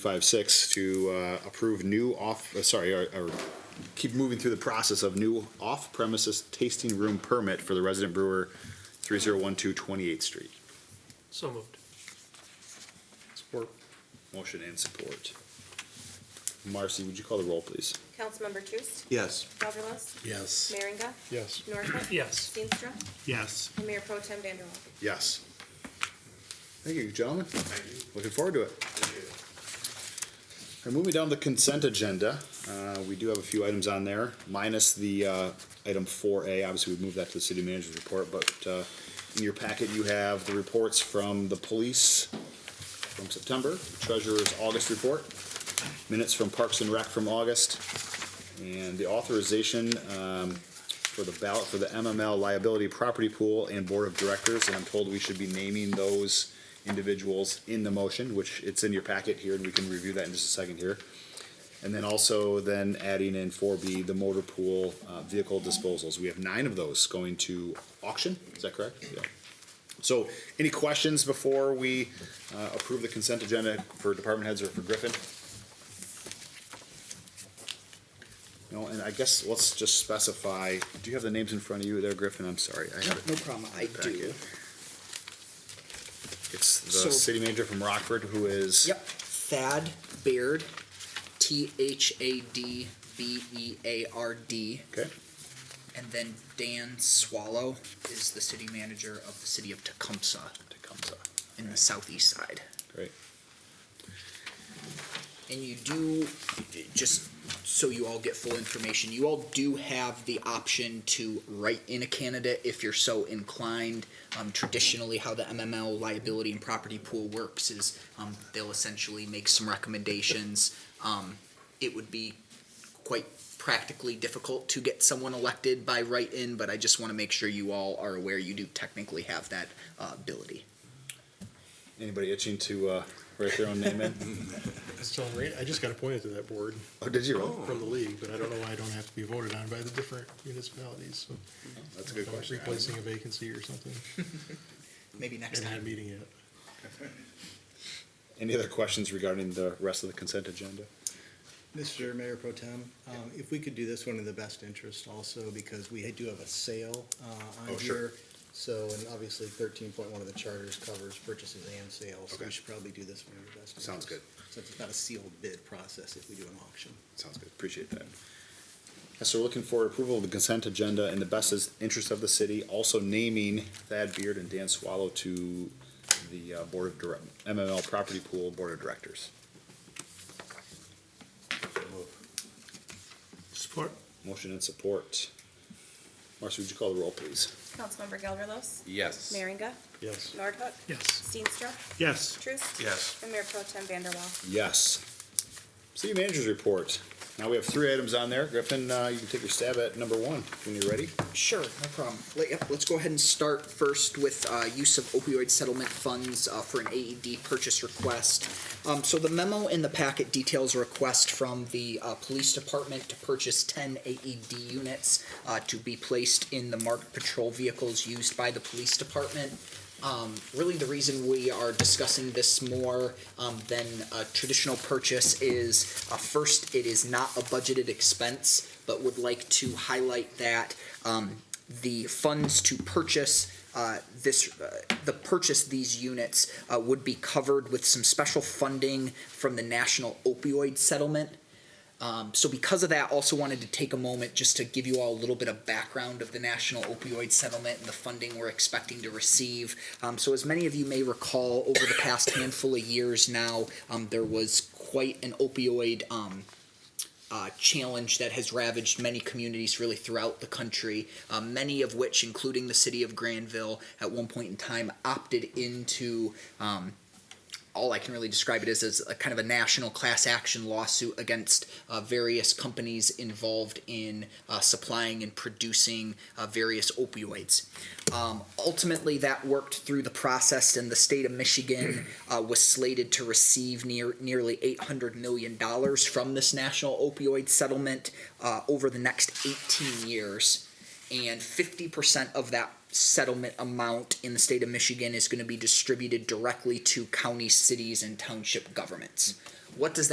five, six, to uh, approve new off, uh, sorry, or, or keep moving through the process of new off-premises tasting room permit for the resident brewer, three zero one two Twenty-Eighth Street. So moved. Support. Motion and support. Marcy, would you call the roll, please? Councilmember Truce, Yes. Gelderlos, Yes. Merringa, Yes. Northcott. Yes. Steenstra, Yes. and Mayor Pro Tem Vanderwaal. Yes. Thank you, gentlemen. Looking forward to it. And moving down the consent agenda, uh, we do have a few items on there, minus the, uh, item four A, obviously we've moved that to the city manager's report, but, uh, in your packet, you have the reports from the police from September, treasurer's August report, minutes from Parks and Rec from August, and the authorization, um, for the ballot for the MML liability property pool and board of directors, and I'm told we should be naming those individuals in the motion, which it's in your packet here, and we can review that in just a second here. And then also then adding in four B, the motor pool, uh, vehicle disposals. We have nine of those going to auction, is that correct? Yeah. So, any questions before we, uh, approve the consent agenda for department heads or for Griffin? No, and I guess let's just specify, do you have the names in front of you there, Griffin? I'm sorry. I have it. No problem, I do. Packet. It's So- the city manager from Rockford who is. Yep, Thad Beard, T H A D B E A R D. Okay. And then Dan Swallow is the city manager of the city of Tecumseh Tecumseh. in the southeast side. Great. And you do, just so you all get full information, you all do have the option to write in a candidate if you're so inclined. Um, traditionally, how the MML liability and property pool works is um, they'll essentially make some recommendations. Um, it would be quite practically difficult to get someone elected by write in, but I just want to make sure you all are aware you do technically have that uh, ability. Anybody itching to uh, write their own name in? Still great. I just got appointed to that board Oh, did you? really? from the league, but I don't know why I don't have to be voted on by the different municipalities, so. That's a good I'm question. Replacing a vacancy or something, Maybe next and time. not meeting it. Any other questions regarding the rest of the consent agenda? Mr. Mayor Pro Tem, um, if we could do this one in the best interest also, because we do have a sale uh, Oh, on sure. here. So, and obviously thirteen point one of the charters covers purchases and sales, so Okay. we should probably do this one in the best interest. Sounds good. Since it's not a sealed bid process if we do an auction. Sounds good. Appreciate that. Yeah, So we're looking for approval of the consent agenda in the best is- interest of the city, also naming Thad Beard and Dan Swallow to the uh, Board of Direct, MML Property Pool Board of Directors. Support. Motion and support. Marcy, would you call the roll, please? Councilmember Gelderlos, Yes. Merringa, Yes. Nordhook, Yes. Steenstra, Yes. Truce. Yes. And Mayor Pro Tem Vanderwaal. Yes. City Manager's Report. Now we have three items on there. Griffin, uh, you can take your stab at number one when you're ready. Sure, no problem. Let, yep, let's go ahead and start first with uh, use of opioid settlement funds uh, for an AED purchase request. Um, so the memo in the packet details a request from the uh, police department to purchase 10 AED units uh, to be placed in the marked patrol vehicles used by the police department. Um, really, the reason we are discussing this more um, than a traditional purchase is uh, first, it is not a budgeted expense, but would like to highlight that um, the funds to purchase uh, this, uh, the purchase these units uh, would be covered with some special funding from the National Opioid Settlement. Um, so because of that, also wanted to take a moment just to give you all a little bit of background of the National Opioid Settlement and the funding we're expecting to receive. Um, so as many of you may recall, over the past handful of years now, um, there was quite an opioid um, uh, challenge that has ravaged many communities really throughout the country, uh, many of which, including the city of Granville, at one point in time opted into. Um, all I can really describe it as is a kind of a national class action lawsuit against uh, various companies involved in uh, supplying and producing uh, various opioids. Um, ultimately, that worked through the process, and the state of Michigan uh, was slated to receive near nearly eight hundred million dollars from this national opioid settlement uh, over the next eighteen years and 50% of that settlement amount in the state of Michigan is going to be distributed directly to county, cities, and township governments. What does that